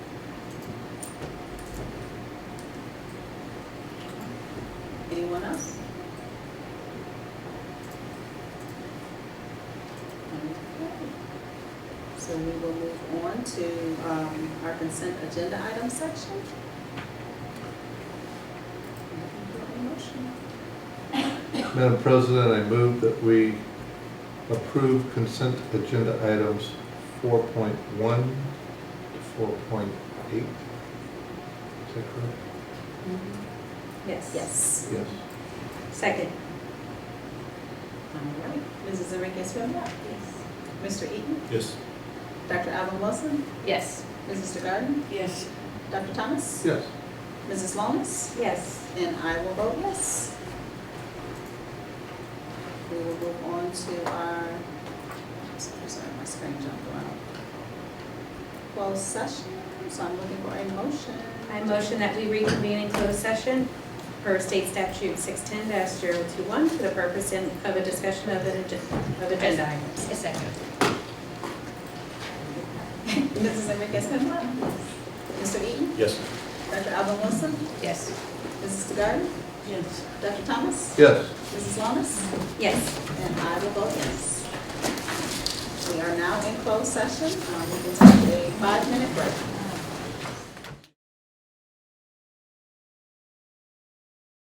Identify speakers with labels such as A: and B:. A: Anyone else? Okay. So we will move on to um, our consent agenda item section. Looking for a motion.
B: Madam President, I move that we approve consent agenda items 4.1 to 4.8. Is that correct?
C: Mm-hmm. Yes.
A: Yes.
B: Yes.
C: Second.
A: All right. Mrs. Enriquez Esmar,
C: Yes.
A: Mr. Eaton,
B: Yes.
A: Dr. Alvin Wilson,
C: Yes.
A: Mrs. Garden,
C: Yes.
A: Dr. Thomas,
B: Yes.
A: Mrs. Lomas,
C: Yes.
A: and I will vote yes. We will move on to our, sorry, sorry, my screen jumped around. Closed session, so I'm looking for a motion.
C: I motion that we reconvene in closed session per state statute six ten 21 for the purpose in- of a discussion of an, agen- of agenda items. second.
A: Mrs. Enriquez Esmar, Mr. Eaton,
B: Yes.
A: Dr. Alvin Wilson,
C: Yes.
A: Mrs. Garden,
C: Yes.
A: Dr. Thomas,
B: Yes.
A: Mrs. Lomas,
C: Yes.
A: And I will vote yes. We are now in closed session. Um, We will take a five-minute break.